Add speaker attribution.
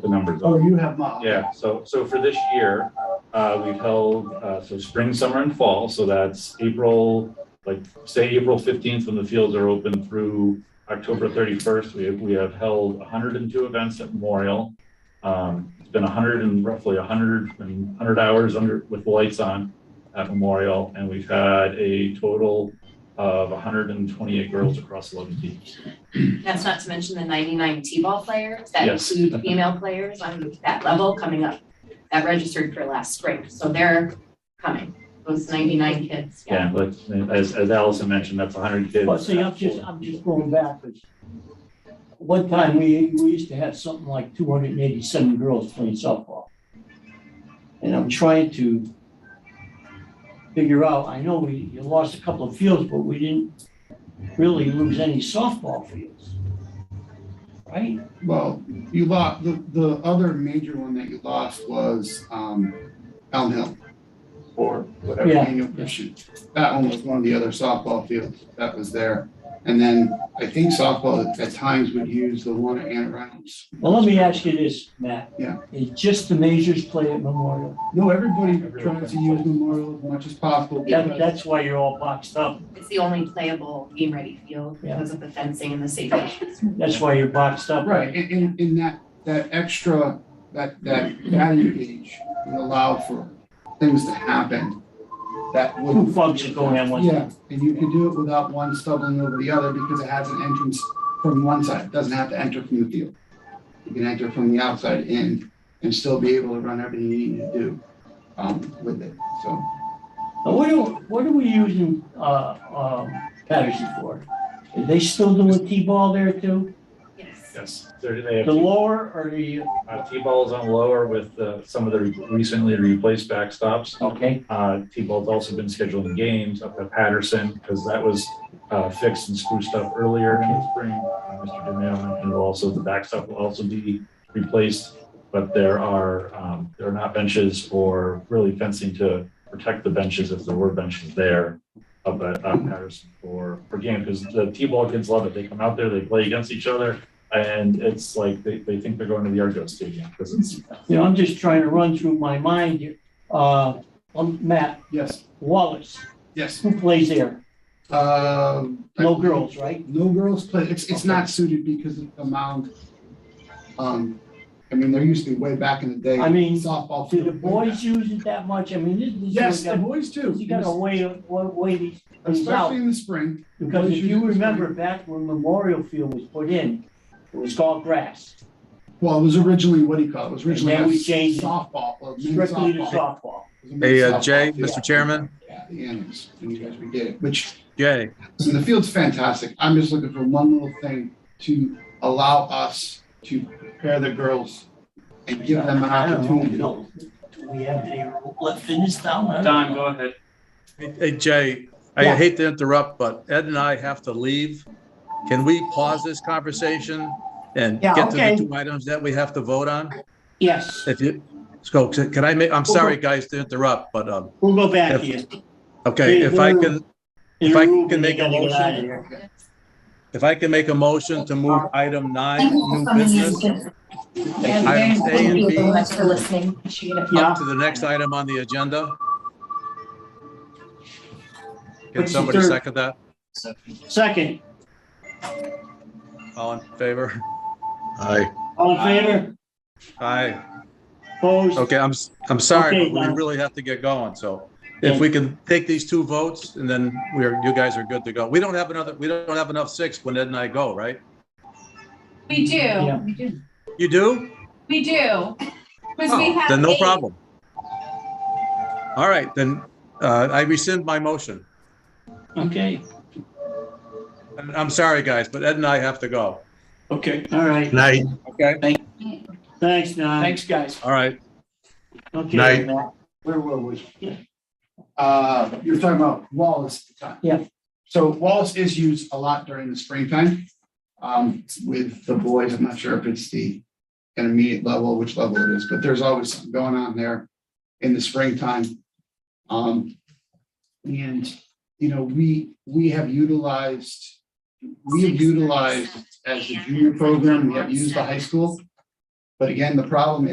Speaker 1: the numbers
Speaker 2: Oh,
Speaker 1: up.
Speaker 2: you have not.
Speaker 1: Yeah, so, so for this year, uh, we've held, uh, so spring, summer and fall, so that's April, like, say April fifteenth when the fields are open through October thirty-first, we have, we have held hundred and two events at Memorial. Um, it's been hundred and roughly hundred, I mean, hundred hours under, with lights on at Memorial, and we've had a total of hundred and twenty-eight girls across eleven teams.
Speaker 3: That's not to mention the ninety-nine T-ball players that
Speaker 1: Yes.
Speaker 3: include female players on that level coming up, that registered for last spring. So they're coming, those ninety-nine kids, yeah.
Speaker 1: Yeah, but as, as Allison mentioned, that's hundred kids.
Speaker 4: Well, see, I'm just, I'm just going backwards. One time, we, we used to have something like two hundred and eighty-seven girls playing softball. And I'm trying to figure out, I know we, you lost a couple of fields, but we didn't really lose any softball fields. Right?
Speaker 2: Well, you lost, the, the other major one that you lost was, um, Elm Hill. Or whatever
Speaker 4: Yeah.
Speaker 2: annual Christian. That one was one of the other softball fields that was there. And then I think softball at- at times would use the one at Ann Reynolds.
Speaker 4: Well, let me ask you this, Matt.
Speaker 2: Yeah.
Speaker 4: Is just the majors play at Memorial?
Speaker 2: No, everybody tries to use Memorial as much as possible.
Speaker 4: That,
Speaker 2: because-
Speaker 4: that's why you're all boxed up.
Speaker 3: It's the only playable game-ready field
Speaker 4: Yeah.
Speaker 3: because of the fencing and the safety issues.
Speaker 4: That's why you're boxed up.
Speaker 2: Right, and, and, and that, that extra, that, that value gauge would allow for things to happen that would.
Speaker 4: Two folks are going on one.
Speaker 2: Yeah, and you can do it without one stumbling over the other because it has an entrance from one side, It doesn't have to enter from the field. You can enter from the outside in and still be able to run everything you need to do, um, with it, so.
Speaker 4: Now, what do, what are we using, uh, um, Patterson for? Are they still doing T-ball there too?
Speaker 3: Yes.
Speaker 1: Yes, they're, they have.
Speaker 4: The lower or the,
Speaker 1: Uh, T-ball's on lower with uh, some of the recently replaced backstops.
Speaker 4: okay,
Speaker 1: Uh, T-ball's also been scheduling games up at Patterson because that was uh, fixed and spruced up earlier in the spring. Uh, Mr. DeMail, and also the backstop will also be replaced. But there are, um, there are not benches or really fencing to protect the benches if there were benches there up at uh, Patterson for, for game because the T-ball kids love it. They come out there, they play against each other. And it's like they, they think they're going to the Argo Stadium because it's
Speaker 4: you know, I'm just trying to run through my mind here. Uh, um, Matt
Speaker 2: Yes,
Speaker 4: Wallace,
Speaker 2: yes,
Speaker 4: who plays there?
Speaker 2: um.
Speaker 4: No girls, right?
Speaker 2: No girls play, it's, it's not suited because of the mound. Um, I mean, there used to be way back in the day.
Speaker 4: I mean,
Speaker 2: Softball.
Speaker 4: Do the
Speaker 2: field.
Speaker 4: boys use it that much? I mean, this is.
Speaker 2: Yes, the boys do.
Speaker 4: You gotta weigh, weigh these things out.
Speaker 2: Especially in the spring.
Speaker 4: Because if you remember back when Memorial Field was put in, it was called grass,
Speaker 2: Well, it was originally, what do you call it? It was
Speaker 4: And
Speaker 2: originally
Speaker 4: then
Speaker 2: a
Speaker 4: we changed it
Speaker 2: softball. a men's
Speaker 4: strictly to
Speaker 2: softball.
Speaker 4: softball.
Speaker 2: It was a men's
Speaker 5: Hey, uh,
Speaker 2: softball
Speaker 5: Jay,
Speaker 2: field.
Speaker 5: Mr. Chairman,
Speaker 2: Yeah, The annex, and you guys redid it, which,
Speaker 5: Jay,
Speaker 2: listen, the field's fantastic. I'm just looking for one little thing to allow us to prepare the girls and give them an
Speaker 4: I don't know,
Speaker 2: opportunity.
Speaker 4: you know, Do we have any left in this town? I don't
Speaker 6: Don,
Speaker 4: know.
Speaker 6: go ahead.
Speaker 5: hey, Jay, I
Speaker 4: Yeah.
Speaker 5: hate to interrupt, but Ed and I have to leave. Can we pause this conversation and
Speaker 4: Yeah,
Speaker 5: get to
Speaker 4: okay.
Speaker 5: the two items that we have to vote on?
Speaker 4: Yes,
Speaker 5: If you, so can I make, I'm sorry, guys, to interrupt, but, um,
Speaker 4: we'll go back
Speaker 5: If-
Speaker 4: to you.
Speaker 5: okay, if I can, If I can make a
Speaker 4: motion.
Speaker 5: if I can make a motion to move item nine, new business,
Speaker 7: And
Speaker 5: Items A and
Speaker 7: thank you
Speaker 5: B.
Speaker 7: very much for listening. Appreciate it.
Speaker 4: Yeah,
Speaker 5: up to the next item on the agenda. Can
Speaker 4: What's the
Speaker 5: somebody
Speaker 4: third-
Speaker 5: second that?
Speaker 4: second,
Speaker 5: All in favor? Aye.
Speaker 4: all in favor,
Speaker 5: Aye.
Speaker 4: opposed?
Speaker 5: Okay, I'm, s- I'm sorry,
Speaker 4: Okay,
Speaker 5: but we
Speaker 4: now-
Speaker 5: really have to get going, so if we can take these two votes and then we're, you guys are good to go. We don't have another, we don't have enough six when Ed and I go, right?
Speaker 8: We
Speaker 4: Yeah.
Speaker 8: do, we do,
Speaker 5: You do?
Speaker 8: we do. 'Cause we
Speaker 5: Oh,
Speaker 8: have
Speaker 5: Then no
Speaker 8: eight.
Speaker 5: problem. All right, then, uh, I rescind my motion.
Speaker 4: Okay,
Speaker 5: And I'm sorry, guys, but Ed and I have to go.
Speaker 4: okay, all right,
Speaker 5: Night. Okay,
Speaker 4: thanks, Don. Thanks, guys.
Speaker 5: all right.
Speaker 4: Okay,
Speaker 5: Night.
Speaker 4: Matt, where were we?
Speaker 2: uh, you're talking about Wallace at the time.
Speaker 4: Yeah.
Speaker 2: So Wallace is used a lot during the springtime, um, with the boys. I'm not sure if it's the intermediate level, which level it is, but there's always something going on there in the springtime. Um, and, you know, we, we have utilized, we have utilized as a junior program, we have used the high school But again, the problem